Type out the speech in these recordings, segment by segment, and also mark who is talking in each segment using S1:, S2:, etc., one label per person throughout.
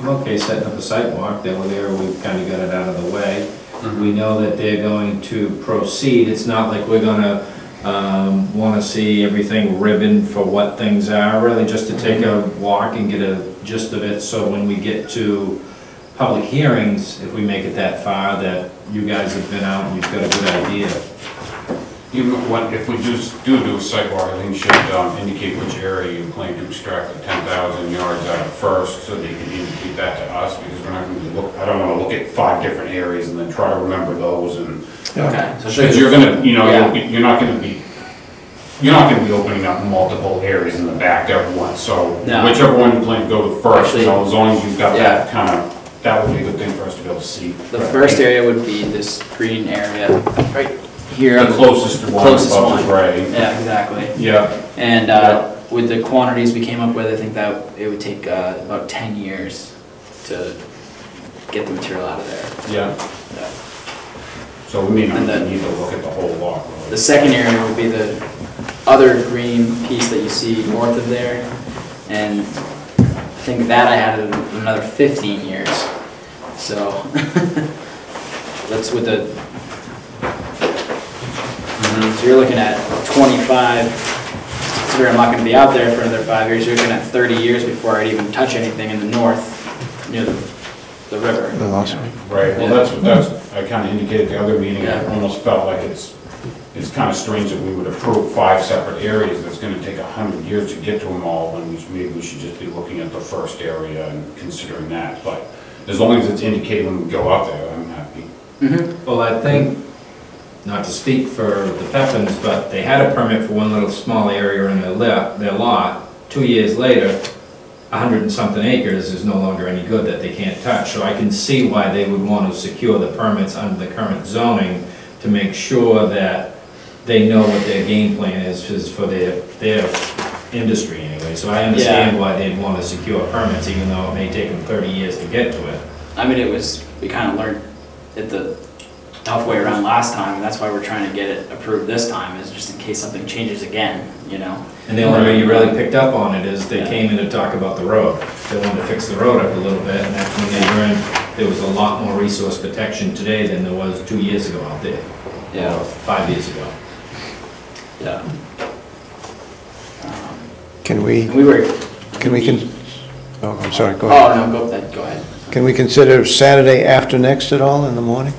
S1: I'm okay setting up a sidewalk, that we're there, we've kind of got it out of the way. We know that they're going to proceed, it's not like we're gonna, um, wanna see everything ribbon for what things are, really just to take a walk and get a gist of it, so when we get to public hearings, if we make it that far, that you guys have been out and you've got a good idea.
S2: You, what, if we just do do a sidewalk, I think you should um, indicate which area you plan to extract the ten thousand yards out of first, so they can indicate that to us, because we're not gonna be look, I don't wanna look at five different areas and then try to remember those and.
S3: Okay, so
S2: Cause
S3: should,
S2: you're gonna, you know, you're you're not gonna be, you're not gonna be opening up multiple areas in the back at once, so
S3: No.
S2: whichever one you plan to go to first, you know, as long as you've got that
S3: Yeah.
S2: kind of, that would be a good thing for us to be able to see.
S3: the first area would be this green area, right here.
S2: The closest to one
S3: Closest
S2: above the
S3: one.
S2: gray.
S3: Yeah, exactly.
S2: Yeah,
S3: And uh, with the quantities we came up with, I think that it would take uh, about 10 years to get the material out of there.
S2: yeah.
S3: Yeah.
S2: So we may not
S3: And then-
S2: need to look at the whole lot.
S3: The second area would be the other green piece that you see north of there. And I think that I added another 15 years. So that's with the, mm-hmm, so you're looking at 25, considering I'm not going to be out there for another five years, you're looking at 30 years before I'd even touch anything in the north, near the the river.
S4: Oh, awesome.
S2: Right, well,
S3: Yeah.
S2: that's, what that's, I kind of indicated the other meeting, I
S3: Yeah.
S2: almost felt like it's, it's kind of strange that we would approve five separate areas, that's going to take a hundred years to get to them all, and we- maybe we should just be looking at the first area and considering that, but as long as it's indicated when we go out there, I'm happy.
S1: Well, I think, not to speak for the Pepins, but they had a permit for one little small area in their lot, their lot. Two years later, a hundred and something acres is no longer any good that they can't touch. So I can see why they would want to secure the permits under the current zoning to make sure that they know what their game plan is, is for their, their industry anyway. So I understand why they'd want to secure permits, even though it may take them thirty years to get to it.
S3: I mean, it was, we kind of learned it the tough way around last time, and that's why we're trying to get it approved this time, is just in case something changes again, you know?
S1: And the only way you really picked up on it is they came in to talk about the road. They wanted to fix the road up a little bit, and that's when they learned there was a lot more resource protection today than there was two years ago out there. or Five years ago.
S3: Yeah.
S4: Can we,
S3: And we were.
S4: can we, con- oh, I'm sorry, go ahead.
S3: Oh, no, go, that- go ahead.
S4: Can we consider Saturday after next at all in the morning?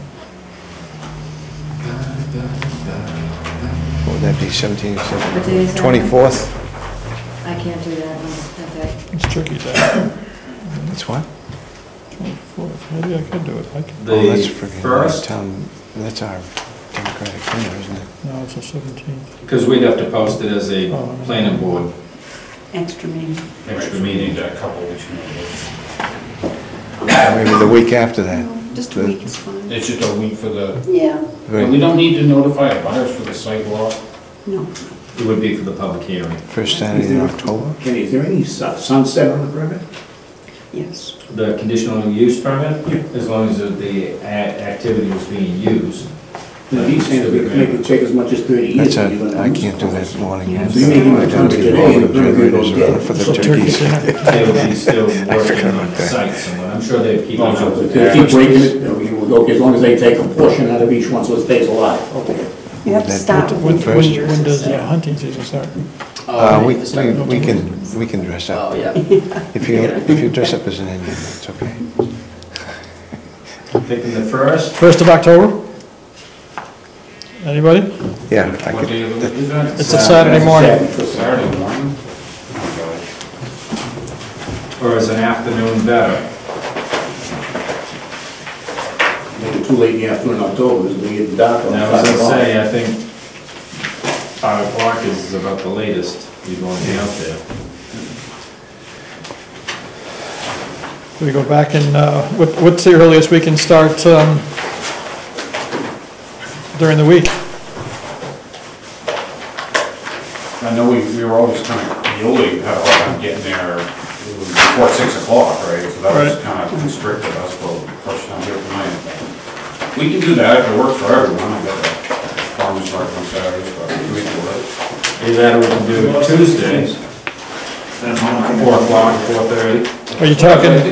S4: What would that be, 17,
S5: What day is that?
S4: 24th?
S5: I can't do that one, okay.
S6: It's tricky that,
S4: That's what?
S6: fourth, maybe I could do it, I could,
S4: Oh, that's
S1: The
S4: friggin'
S1: first,
S4: town- That's our Democratic dinner, isn't it?
S6: no, it's the seventeenth.
S1: because we'd have to post it as
S4: Oh,
S1: a planning board
S5: Extra meeting.
S1: extra
S2: Right, we
S1: meeting.
S2: need a couple weeks notice.
S4: Or Maybe the week after that.
S5: Just
S4: The-
S5: a week is fine.
S2: It's just a week for the,
S5: Yeah,
S2: and we
S4: Very
S2: don't need to notify our buyers for the sidewalk.
S5: no.
S1: It would be for the public hearing.
S4: First Saturday in October?
S7: Kenny, is there any su- sunset on the permit?
S5: Yes.
S1: The conditional use permit, as long as the a- activity was being used.
S7: No, he's saying that we can make it take as much as thirty years.
S4: That's a,
S7: to do it.
S4: I can't do that morning.
S5: Yeah,
S4: I
S5: so
S7: you may even come
S4: don't
S7: to
S4: need
S7: today,
S4: all the
S7: but we're gonna go
S4: generators
S7: get-
S4: around for the
S6: So turkey
S4: turkeys.
S6: dinner,
S1: They would be still working
S4: forgot
S1: on
S4: about
S1: the
S4: that.
S1: site somewhere. I'm sure they'd
S7: Oh,
S1: keep. an eye on
S7: If
S1: it.
S7: they keep breaking it, then we will go, as long as they take a portion out of each one, so it stays alive. Okay.
S5: You have to
S4: That-
S5: start
S6: when,
S5: within
S4: First.
S5: three
S6: when
S5: years.
S6: when
S5: it
S6: does the
S5: said.
S6: hunting season start?
S4: Uh,
S3: Oh,
S4: we,
S3: it's like-
S4: we we can, we can dress
S3: Oh,
S4: up.
S3: yeah.
S4: If you, if you dress up as an Indian, it's okay.
S1: Picking the first,
S6: First of October? Anybody?
S4: Yeah, I
S2: What
S4: could,
S2: day of the week is that?
S6: It's a Saturday morning.
S2: Saturday morning? Oh, gosh.
S1: or is an afternoon better?
S7: Make it too late in the afternoon, in October, it's gonna get dark. on
S1: And I was gonna
S7: Friday morning.
S1: say, I think five o'clock is about the latest you'd wanna be out there.
S6: We go back and, uh, what, what's the earliest we can start, um, during the week?
S2: I know we, we were always kind of yielding, had a hard time getting there it was before six o'clock, right? So that was
S6: Right.
S2: kind of constricted us for the first time here tonight. We can do that, if it works for everyone, I got a farmer's market on Saturdays, but we can do it.
S1: Either that or we can do Tuesdays, four o'clock, four thirty.
S6: Are you talking